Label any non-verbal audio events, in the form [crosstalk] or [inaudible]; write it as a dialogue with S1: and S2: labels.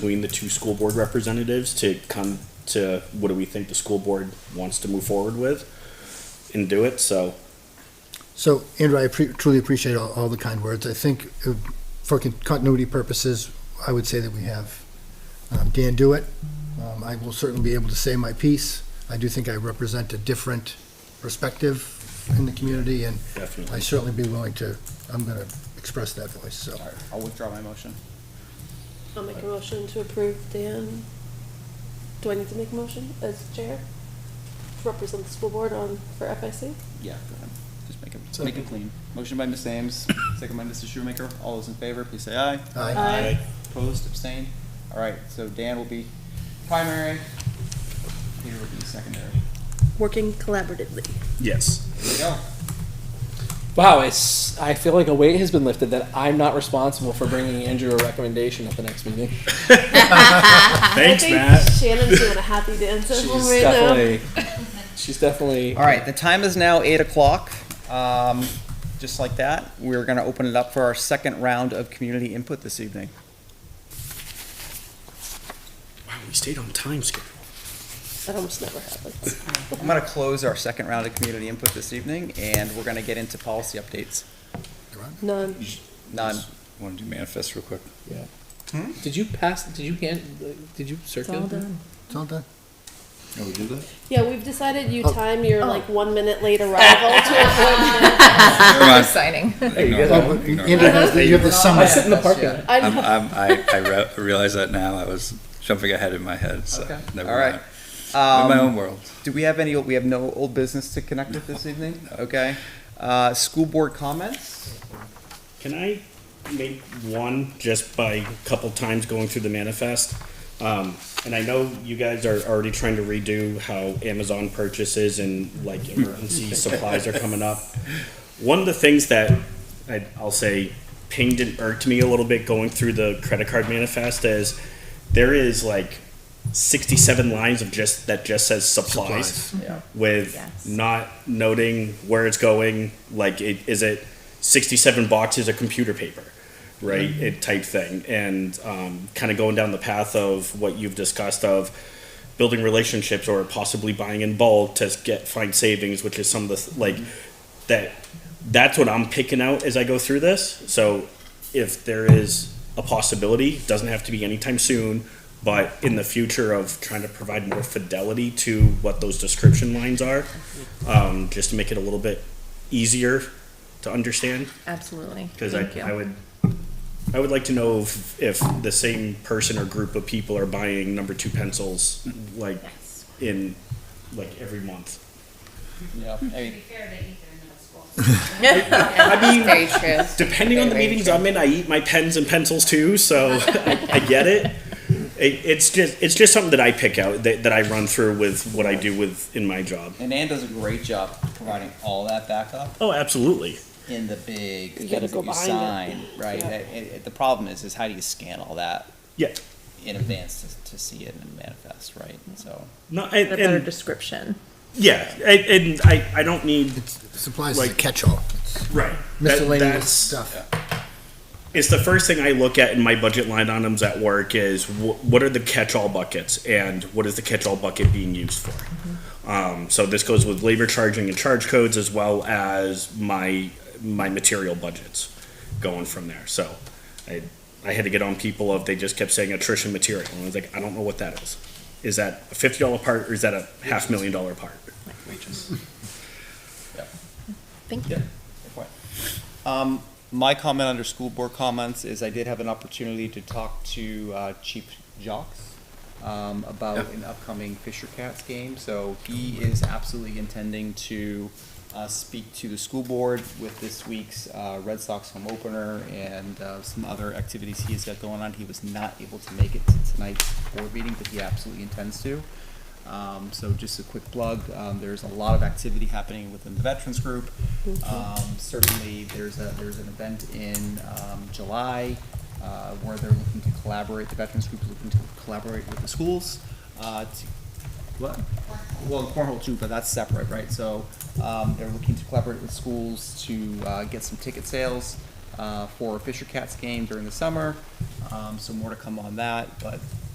S1: between the two school board representatives to come to what do we think the school board wants to move forward with and do it, so.
S2: So, Andrew, I appre- truly appreciate all, all the kind words. I think uh, for con- continuity purposes, I would say that we have um, Dan do it. Um, I will certainly be able to say my piece. I do think I represent a different perspective in the community, and I
S1: Definitely.
S2: certainly be willing to, I'm going to express that voice, so.
S3: All right, I'll withdraw my motion.
S4: I'll make a motion to approve Dan. Do I need to make a motion as chair? To represent the school board on, for FIC?
S3: Yeah, go ahead. Just make it, make
S2: Second.
S3: it clean. Motion by Ms. Ames, second by Mr. Shoemaker. All those in favor, please say aye.
S2: Aye.
S4: Aye.
S3: Opposed, abstained? All right, so Dan will be primary, Peter will be secondary.
S4: Working collaboratively.
S1: Yes.
S3: There we go.
S5: Wow, it's. I feel like a weight has been lifted that I'm not responsible for bringing Andrew a recommendation at the next meeting.
S1: Thanks,
S4: I think
S1: Matt.
S4: Shannon's doing a happy dance at home right now.
S5: She's definitely.
S3: All right, the time is now eight o'clock. Um, just like that, we're gonna open it up for our second round of community input this evening.
S1: Wow, we stayed on time schedule.
S4: That almost never happens.
S3: I'm gonna close our second round of community input this evening, and we're gonna get into policy updates.
S4: None.
S3: None.
S6: Want to do manifest real quick?
S3: [laughs]
S5: Did you pass? Did you hand? Did you circulate? them?
S2: It's all done.
S6: Oh, we did that?
S4: Yeah, we've decided you
S2: Oh.
S4: time your like one minute late arrival to avoid.
S6: Never mind.
S7: exciting.
S6: Ignore
S2: Oh,
S6: that.
S2: but
S6: Ignore
S2: Andrew
S6: that.
S2: has the- you have the
S5: I
S2: summary.
S5: sit in the parking lot.
S6: I'm,
S4: I'd-
S6: I'm, I, I re- realize that now. I was jumping ahead in my head, so
S3: Okay.
S6: never
S3: All right. Um,
S6: mind. I'm in my own world.
S3: Do we have any, we have no old business to connect with this evening? Okay. Uh, school board comments?
S1: Can I make one just by a couple times going through the manifest? Um, and I know you guys are already trying to redo how Amazon purchases and like emergency supplies are coming up. One of the things that I, I'll say pinged and irked me a little bit going through the credit card manifest is there is like sixty-seven lines of just that just says supplies with
S7: Yes.
S1: not noting where it's going. Like, it, is it 67 boxes of computer paper, right? It type thing. And um, kind of going down the path of what you've discussed of building relationships or possibly buying in bulk to get find savings, which is some of the th- like that. That's what I'm picking out as I go through this. So, if there is a possibility, doesn't have to be anytime soon, but in the future of trying to provide more fidelity to what those description lines are, um, just to make it a little bit easier to understand,
S7: Absolutely.
S1: because I,
S7: Thank you.
S1: I would, I would like to know if, if the same person or group of people are buying number two pencils, like,
S7: Yes.
S1: in, like, every month.
S3: Yeah.
S8: To be fair, they eat their middle school.
S7: [laughs]
S1: I mean,
S7: Very true. [laughs]
S1: depending on the
S7: Very
S1: meetings
S7: true.
S1: I'm in, I eat my pens and pencils too, so [laughs] I, I get it. it. It's just it's just something that I pick out that, that I run through with what I do with in my job.
S3: And Ann does a great job providing all that backup
S1: Oh, absolutely.
S3: in the big
S4: You gotta
S3: things
S4: go
S3: that you
S4: behind
S3: sign, right?
S4: Yeah.
S3: That- it- it- The problem is, is how do you scan all that
S1: Yeah.
S3: in advance to, to see it in manifest, right? So,
S1: No, and,
S7: A better
S1: and
S7: description.
S1: yeah, and, and I, I don't need
S2: Supplies is a
S1: Like-
S2: catch-all.
S1: right That-
S2: Miscellaneous
S1: that's-
S2: stuff.
S1: It's the first thing I look at in my budget line items at work is wh- what are the catch-all buckets and what is the catch-all bucket being used for. Um, so this goes with labor charging and charge codes as well as my my material budgets going from there. So I I had to get on people of they just kept saying attrition material and I was like I don't know what that is. Is that a fifty dollar part or is that a half million dollar part?
S7: Thank you.
S3: good point. Um, my comment under school board comments is I did have an opportunity to talk to uh, Chief Jocks um, about an upcoming Fisher Cats game. So he is absolutely intending to uh, speak to the school board with this week's uh, Red Sox home opener and uh, some other activities he has got going on. He was not able to make it to tonight's board meeting, but he absolutely intends to. Um, so just a quick plug, um, there's a lot of activity happening within the veterans group. Um, certainly, there's a, there's an event in, um, July, uh, where they're looking to collaborate, the veterans group is looking to collaborate with the schools, uh, to, what? Well, cornhole too, but that's separate, right? So, um, they're looking to collaborate with schools to, uh, get some ticket sales, uh, for Fisher Cats game during the summer. Um, so more to come on that, but